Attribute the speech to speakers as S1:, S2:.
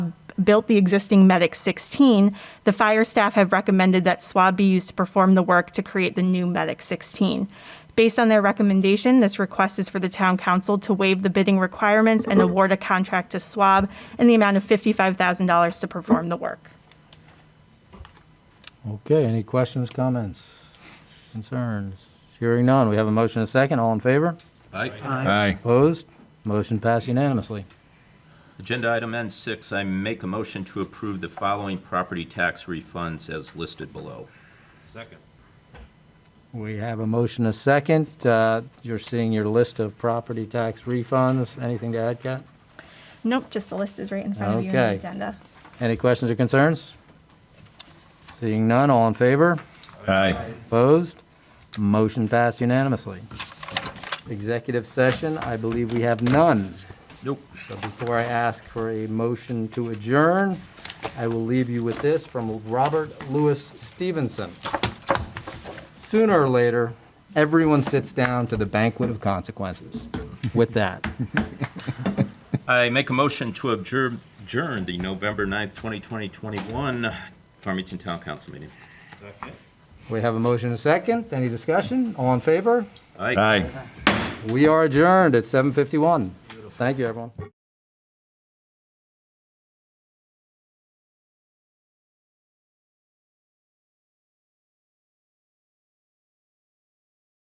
S1: built the existing Medic 16, the fire staff have recommended that swab be used to perform the work to create the new Medic 16. Based on their recommendation, this request is for the town council to waive the bidding requirements and award a contract to Swab in the amount of $55,000 to perform the work.
S2: Okay, any questions, comments, concerns? Hearing none, we have a motion and a second, all in favor?
S3: Aye.
S2: Opposed? Motion passed unanimously.
S4: Agenda item N6, I make a motion to approve the following property tax refunds as listed below.
S5: Second.
S2: We have a motion and a second. Uh, You're seeing your list of property tax refunds. Anything to add, Kat?
S1: Nope, just the list is right in front of you in
S2: Okay.
S1: the agenda.
S2: Any questions or concerns? Seeing none, all in favor?
S3: Aye.
S2: Opposed? Motion passed unanimously. Executive session, I believe we have none.
S4: Nope.
S2: So before I ask for a motion to adjourn, I will leave you with this from Robert Louis Stevenson. Sooner or later, everyone sits down to the banquet of consequences. With that,
S4: I make a motion to adjourn adjourn the November 9th, 2021 Farmington Town Council meeting.
S5: Second.
S2: we have a motion and a second. Any discussion? All in favor?
S4: Aye.
S3: Aye.
S2: We are adjourned at 7:51. Thank you, everyone.